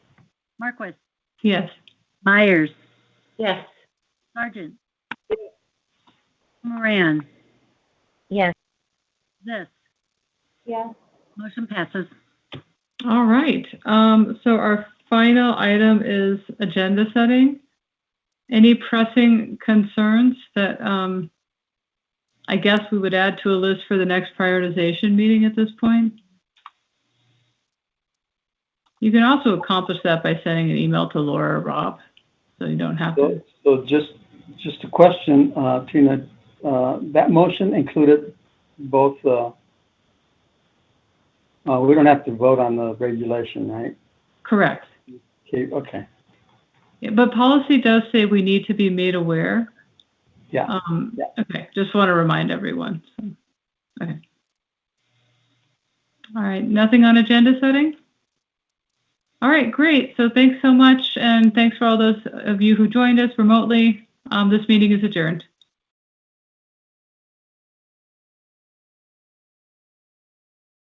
Marquis, Yes. Myers, Yes. Sargent. Moran, Yes. this, Yes. motion passes. All right. Um, so our final item is agenda setting. Any pressing concerns that um, I guess we would add to a list for the next prioritization meeting at this point? You can also accomplish that by sending an email to Laura or Rob, so you don't have to. So, so just, just a question, uh, Tina, uh, that motion included both, uh, uh, we don't have to vote on the regulation, right? Correct. Okay, okay, Yeah, But policy does say we need to be made aware. Yeah. Um, Yeah. okay, just want to remind everyone. so, Okay. All right, nothing on agenda setting? All right, great. So thanks so much. And thanks for all those of you who joined us remotely. Um, this meeting is adjourned.